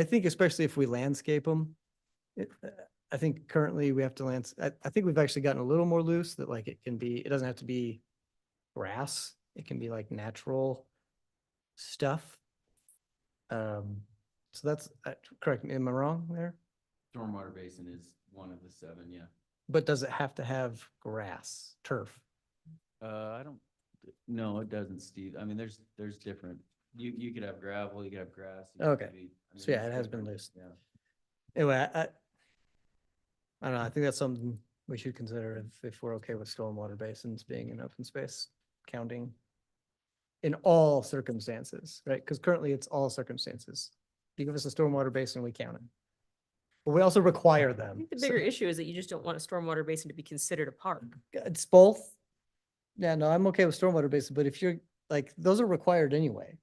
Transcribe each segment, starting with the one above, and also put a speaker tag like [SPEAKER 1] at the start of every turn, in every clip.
[SPEAKER 1] I think especially if we landscape them, it, uh, I think currently we have to lands, I, I think we've actually gotten a little more loose that like it can be, it doesn't have to be grass. It can be like natural stuff. Um, so that's, uh, correct me, am I wrong there?
[SPEAKER 2] Stormwater basin is one of the seven, yeah.
[SPEAKER 1] But does it have to have grass, turf?
[SPEAKER 2] Uh, I don't, no, it doesn't, Steve. I mean, there's, there's different, you, you could have gravel, you could have grass. you could
[SPEAKER 1] Okay.
[SPEAKER 2] have e- I
[SPEAKER 1] So
[SPEAKER 2] mean,
[SPEAKER 1] yeah,
[SPEAKER 2] it's
[SPEAKER 1] it has been
[SPEAKER 2] different,
[SPEAKER 1] loose.
[SPEAKER 2] Yeah.
[SPEAKER 1] Anyway, I, I I don't know, I think that's something we should consider if, if we're okay with stormwater basins being in open space counting in all circumstances, right? Because currently it's all circumstances. You give us a stormwater basin, we count it. But we also require
[SPEAKER 3] I
[SPEAKER 1] them.
[SPEAKER 3] think the
[SPEAKER 1] so- Mm.
[SPEAKER 3] bigger issue is that you just don't want a stormwater basin to be considered a park.
[SPEAKER 1] uh, It's both. Yeah, no, I'm okay with stormwater basin, but if you're, like, those are required anyway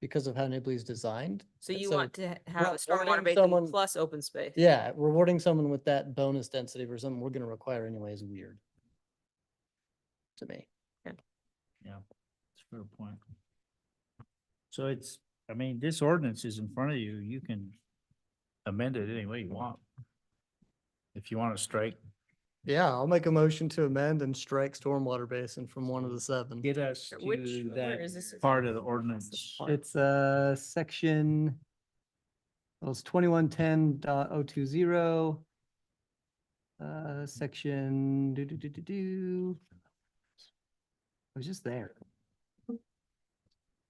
[SPEAKER 1] because of how Nibley's designed.
[SPEAKER 3] So you
[SPEAKER 1] So
[SPEAKER 3] want to ha-
[SPEAKER 1] not
[SPEAKER 3] have a stormwater
[SPEAKER 1] wanting
[SPEAKER 3] basin
[SPEAKER 1] someone-
[SPEAKER 3] plus open space.
[SPEAKER 1] Yeah, rewarding someone with that bonus density for something we're gonna require anyway is weird. To me.
[SPEAKER 4] That's a fair point. So it's, I mean, this ordinance is in front of you, you can amend it any way you want. If you want to strike,
[SPEAKER 1] Yeah, I'll make a motion to amend and strike stormwater basin from one of the seven.
[SPEAKER 4] get us
[SPEAKER 3] Which-
[SPEAKER 4] to
[SPEAKER 3] where is this?
[SPEAKER 4] that part of the ordinance.
[SPEAKER 3] part.
[SPEAKER 1] It's uh section. Well, it's twenty-one ten dot oh two zero. Uh, section do do do do do. I was just there,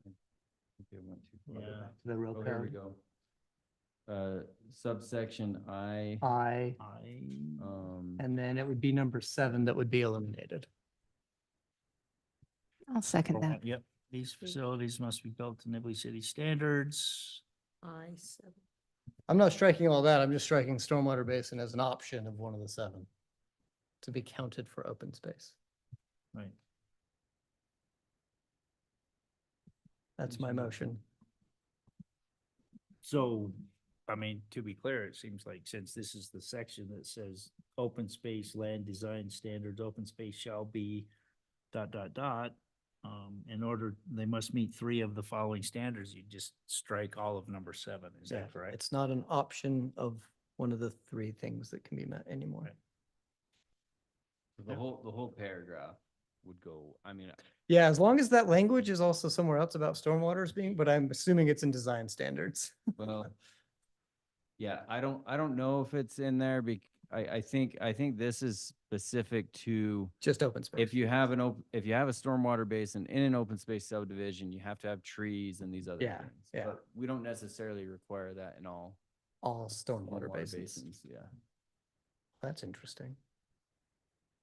[SPEAKER 2] Okay, one, two, I'll go
[SPEAKER 4] Yeah.
[SPEAKER 2] back.
[SPEAKER 1] the row
[SPEAKER 2] Oh, here we
[SPEAKER 1] code.
[SPEAKER 2] go. Uh, subsection I,
[SPEAKER 1] I,
[SPEAKER 4] I-
[SPEAKER 2] um,
[SPEAKER 1] and then it would be number seven that would be eliminated.
[SPEAKER 5] I'll second that.
[SPEAKER 4] Yep, Uh, these facilities must be built to Nibley City standards.
[SPEAKER 3] I seven.
[SPEAKER 1] I'm not striking all that. I'm just striking stormwater basin as an option of one of the seven to be counted for open space.
[SPEAKER 4] Right.
[SPEAKER 1] That's my motion.
[SPEAKER 4] So, I mean, to be clear, it seems like since this is the section that says open space, land design standards, open space shall be dot, dot, dot, um, in order, they must meet three of the following standards, you just strike all of number seven, is
[SPEAKER 1] Yeah,
[SPEAKER 4] that correct?
[SPEAKER 1] It's not an option of one of the three things that can be met anymore.
[SPEAKER 4] Right.
[SPEAKER 2] the whole, the whole paragraph would go, I mean, uh,
[SPEAKER 1] Yeah, as long as that language is also somewhere else about stormwater is being, but I'm assuming it's in design standards.
[SPEAKER 2] Well, yeah, I don't, I don't know if it's in there bec I, I think, I think this is specific to
[SPEAKER 1] Just open space.
[SPEAKER 2] if you have an op, if you have a stormwater basin in an open space subdivision, you have to have trees and these other
[SPEAKER 1] Yeah,
[SPEAKER 2] things.
[SPEAKER 1] yeah.
[SPEAKER 2] but We don't necessarily require that in all
[SPEAKER 1] All stormwater
[SPEAKER 2] stormwater
[SPEAKER 1] basins.
[SPEAKER 2] basins, yeah.
[SPEAKER 1] That's interesting.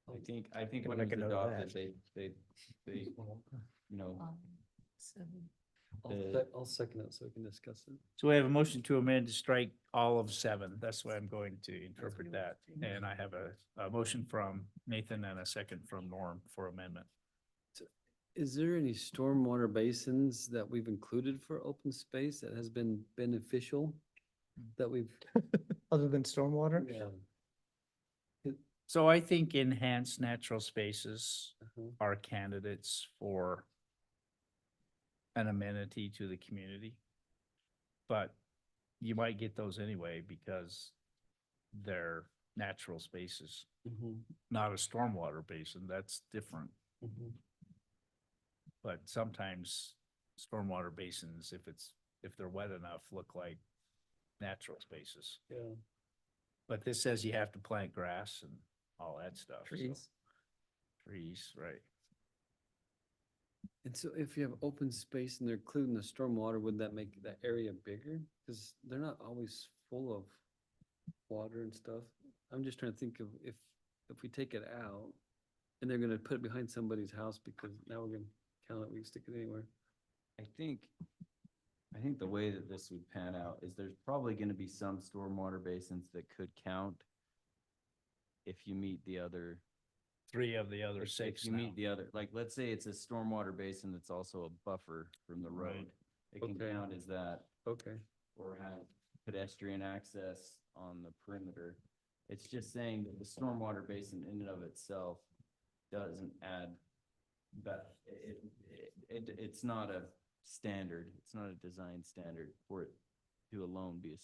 [SPEAKER 2] I think, I think
[SPEAKER 1] Gotta
[SPEAKER 2] when it
[SPEAKER 1] make
[SPEAKER 2] was
[SPEAKER 1] a note of
[SPEAKER 2] adopted, they,
[SPEAKER 1] that.
[SPEAKER 2] they, they, you know,
[SPEAKER 6] I'll,
[SPEAKER 2] Uh,
[SPEAKER 6] sec- I'll second it so we can discuss it.
[SPEAKER 4] So we have a motion to amend to strike all of seven, that's why I'm going to interpret that, and I have a, a motion from Nathan and a second from Norm for amendment.
[SPEAKER 6] Is there any stormwater basins that we've included for open space that has been beneficial? That we've,
[SPEAKER 1] Other than stormwater?
[SPEAKER 6] yeah.
[SPEAKER 4] So I think enhanced natural spaces
[SPEAKER 6] uh-huh.
[SPEAKER 4] are candidates for an amenity to the community. But you might get those anyway because they're natural spaces,
[SPEAKER 6] Mhm,
[SPEAKER 4] not a stormwater basin. That's different.
[SPEAKER 6] mhm.
[SPEAKER 4] But sometimes stormwater basins, if it's, if they're wet enough, look like natural spaces.
[SPEAKER 6] Yeah,
[SPEAKER 4] But this says you have to plant grass and all that stuff. so- Trees, right.
[SPEAKER 6] and so if you have open space and they're including the stormwater, would that make that area bigger? Cause they're not always full of water and stuff. I'm just trying to think of if, if we take it out and they're gonna put it behind somebody's house because now we're gonna count it, we can stick it anywhere.
[SPEAKER 2] I think, I think the way that this would pan out is there's probably gonna be some stormwater basins that could count if you meet the other
[SPEAKER 4] Three of the other
[SPEAKER 2] If-
[SPEAKER 4] six
[SPEAKER 2] If you
[SPEAKER 4] now.
[SPEAKER 2] meet the other, like, let's say it's a stormwater basin that's also a buffer from the
[SPEAKER 4] Right.
[SPEAKER 2] road. It can
[SPEAKER 6] Okay.
[SPEAKER 2] count as that
[SPEAKER 6] Okay.
[SPEAKER 2] or have pedestrian access on the perimeter. It's just saying that the stormwater basin in and of itself doesn't add, but it, it, it, it's not a standard. It's not a design standard for it to alone be a